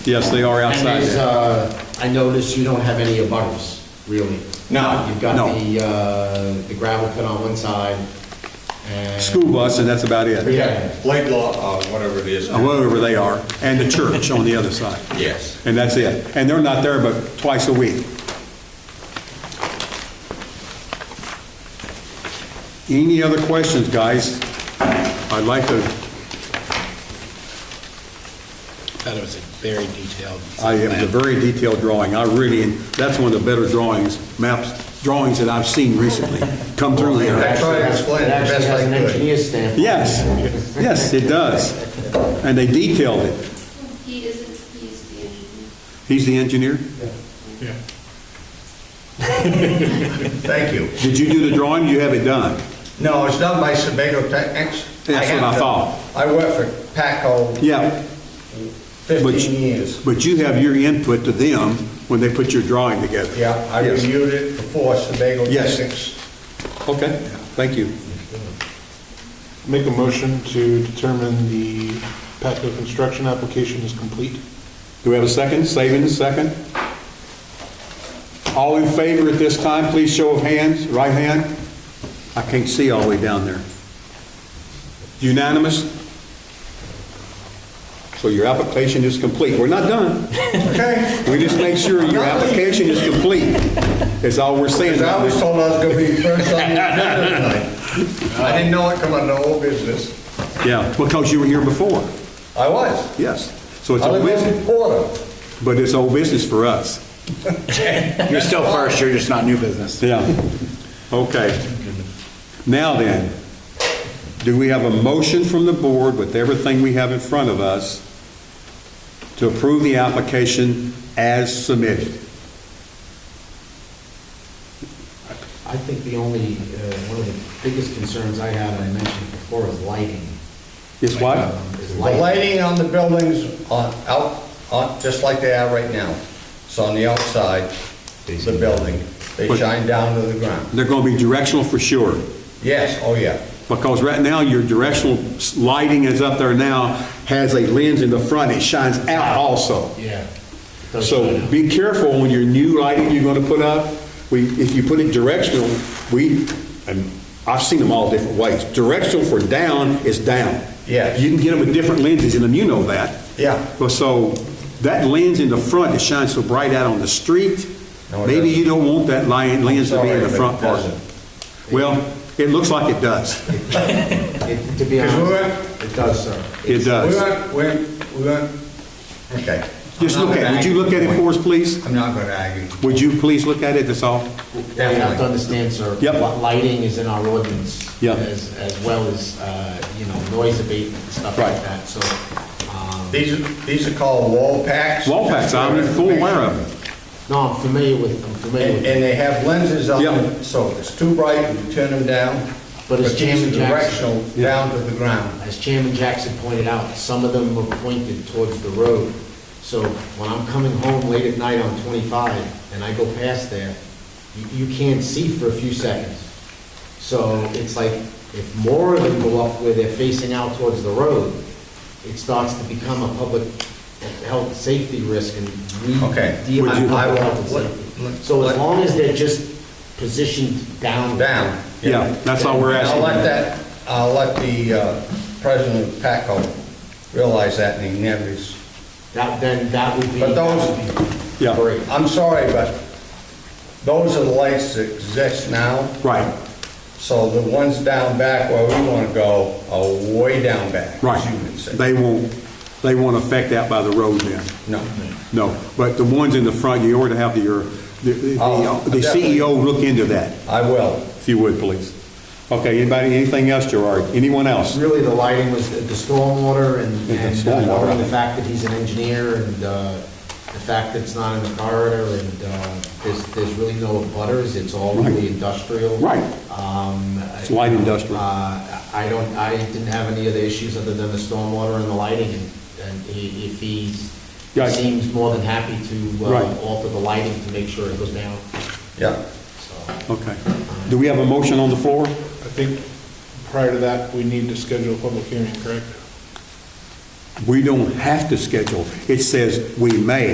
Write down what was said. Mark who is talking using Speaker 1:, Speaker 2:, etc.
Speaker 1: Yes, they are
Speaker 2: And
Speaker 1: outside
Speaker 2: there's,
Speaker 1: there.
Speaker 2: uh, I noticed you don't have any abutters, really.
Speaker 1: No,
Speaker 2: You've got
Speaker 1: no.
Speaker 2: the, uh, the gravel pit on one side and.
Speaker 1: School bus, and that's about it.
Speaker 2: Yeah.
Speaker 3: Laidlaw, uh, whatever it is.
Speaker 1: Wherever they are, and the church on the other side.
Speaker 3: Yes.
Speaker 1: And that's it. And they're not there but twice a week. Any other questions, guys? I'd like to,
Speaker 4: Thought it was a very detailed.
Speaker 1: I have a very detailed drawing. I really, that's one of the better drawings, maps, drawings that I've seen recently come through here.
Speaker 3: I tried to explain it
Speaker 2: It
Speaker 3: the
Speaker 2: actually has
Speaker 3: best I
Speaker 2: an
Speaker 3: could.
Speaker 2: engineer stamp.
Speaker 1: Yes, yes, it does. And they detailed it.
Speaker 5: He isn't, he's the engineer.
Speaker 1: He's the engineer?
Speaker 3: Thank you.
Speaker 1: Did you do the drawing? You have it done?
Speaker 3: No, it's done by Sebago Technics.
Speaker 1: That's what I
Speaker 3: have to-
Speaker 1: thought.
Speaker 3: I worked for Paco
Speaker 1: Yeah. but-
Speaker 3: 15 years.
Speaker 1: But you have your input to them when they put your drawing together?
Speaker 3: Yeah, I
Speaker 1: Yes.
Speaker 3: reviewed it before Sebago
Speaker 1: Yes.
Speaker 3: Technics.
Speaker 1: Okay, thank you.
Speaker 6: Make a motion to determine the Patco construction application is complete.
Speaker 1: Do we have a second? Saving a second? All in favor at this time, please show of hands, right hand. I can't see all the way down there. Unanimous? So your application is complete. We're not done.
Speaker 3: Okay?
Speaker 1: We just make sure your application is complete, is all we're saying.
Speaker 3: Because I
Speaker 1: down
Speaker 3: was
Speaker 1: there.
Speaker 3: told I was going to be first on the agenda tonight. I didn't know it come under old business.
Speaker 1: Yeah, because you were here before,
Speaker 3: I was.
Speaker 1: yes. So it's
Speaker 3: I
Speaker 1: old
Speaker 3: was
Speaker 1: business,
Speaker 3: in Porter.
Speaker 1: but it's old business for us.
Speaker 4: You're still first, you're just not new business.
Speaker 1: Yeah, okay. Now then, do we have a motion from the board with everything we have in front of us to approve the application as submitted?
Speaker 2: I think the only, uh, one of the biggest concerns I have, and I mentioned before, is lighting.
Speaker 1: Is what?
Speaker 2: Um, Is
Speaker 3: The lighting on the buildings on, out, on, just like they are right now. It's on the outside, the building. They
Speaker 1: But-
Speaker 3: shine down to the ground.
Speaker 1: They're going to be directional for sure,
Speaker 3: Yes, oh yeah.
Speaker 1: because right now, your directional s- lighting is up there now, has a lens in the front, it shines out also.
Speaker 4: Yeah.
Speaker 1: So be careful when your new lighting you're gonna put up, we, if you put it directional, we, and I've seen them all different ways. Directional for down is down.
Speaker 3: Yes.
Speaker 1: You can get them with different lenses in them, you know that.
Speaker 3: Yeah.
Speaker 1: But so, that lens in the front that shines so bright out on the street,
Speaker 3: No, it
Speaker 1: maybe
Speaker 3: doesn't.
Speaker 1: you don't want that lion, lens to be in the
Speaker 3: Sorry, but it
Speaker 1: front part.
Speaker 3: doesn't.
Speaker 1: Well, it looks like it does.
Speaker 2: It- To be
Speaker 3: Because
Speaker 2: honest,
Speaker 3: we weren't,
Speaker 2: it does, sir.
Speaker 1: It
Speaker 3: we
Speaker 1: does.
Speaker 3: weren't, we weren't, we weren't, okay.
Speaker 1: Just look at it. Would you look at it for us, please?
Speaker 3: I'm not gonna argue.
Speaker 1: Would you please look at it, that's all?
Speaker 2: You have to understand, sir.
Speaker 1: Yep.
Speaker 2: what Lighting is in our ordinance.
Speaker 1: Yeah.
Speaker 2: As, as well as, uh, you know, noise abatement and stuff like
Speaker 1: Right.
Speaker 2: that, so. um,
Speaker 3: These are, these are called wall packs.
Speaker 1: Wall packs, I'm full aware of them.
Speaker 2: No, I'm familiar with, I'm familiar
Speaker 3: And,
Speaker 2: with,
Speaker 3: and they have lenses on
Speaker 1: Yeah.
Speaker 3: them, so if it's too bright, you turn them down.
Speaker 2: But it's
Speaker 3: these
Speaker 2: Jim
Speaker 3: are
Speaker 2: Jackson.
Speaker 3: Directional down to the ground.
Speaker 2: as Chairman Jackson pointed out, some of them were pointed towards the road. So when I'm coming home late at night on 25 and I go past there, you, you can't see for a few seconds. So it's like, if more of them go up where they're facing out towards the road, it starts to become a public health, and safety risk and we
Speaker 3: Okay.
Speaker 2: deal
Speaker 3: Would
Speaker 2: with
Speaker 3: you-
Speaker 2: public health and
Speaker 3: What-
Speaker 2: safety.
Speaker 3: what-
Speaker 2: So as
Speaker 3: what-
Speaker 2: long as they're just positioned down.
Speaker 3: Down.
Speaker 1: Yeah, that's all we're
Speaker 3: And
Speaker 1: asking.
Speaker 3: I'll let that, I'll let the uh, president of PACO realize that and he never is.
Speaker 2: That, then that would be.
Speaker 3: But those-
Speaker 2: that would be
Speaker 1: Yeah.
Speaker 2: Great.
Speaker 3: I'm sorry, but those are the lights that exist now.
Speaker 1: Right,
Speaker 3: So the ones down back where we want to go are way down back.
Speaker 1: right.
Speaker 3: As you would say.
Speaker 1: They won't, they won't affect that by the road then.
Speaker 3: No.
Speaker 1: No, but the ones in the front, you ought to have your, the- the uh,
Speaker 3: Oh,
Speaker 1: the CEO look into that,
Speaker 3: I will.
Speaker 1: if you would, please. Okay, anybody, anything else, Gerard? Anyone else?
Speaker 2: Really, the lighting was the the stormwater and,
Speaker 1: Yeah,
Speaker 2: and
Speaker 1: stormwater.
Speaker 2: covering the fact that he's an engineer and uh, the fact that it's not in the corridor and uh, there's, there's really no butters, it's all really industrial.
Speaker 1: Right.
Speaker 2: Um,
Speaker 1: It's light industrial.
Speaker 2: uh, I don't, I didn't have any other issues other than the stormwater and the lighting, and- and he- if he's,
Speaker 1: Yeah.
Speaker 2: seems more than happy to
Speaker 1: Right.
Speaker 2: uh, alter the lighting to make sure it goes down,
Speaker 3: Yeah.
Speaker 2: so.
Speaker 1: Okay. Do we have a motion on the floor?
Speaker 6: I think prior to that, we need to schedule a public hearing, correct?
Speaker 1: We don't have to schedule. It says we may.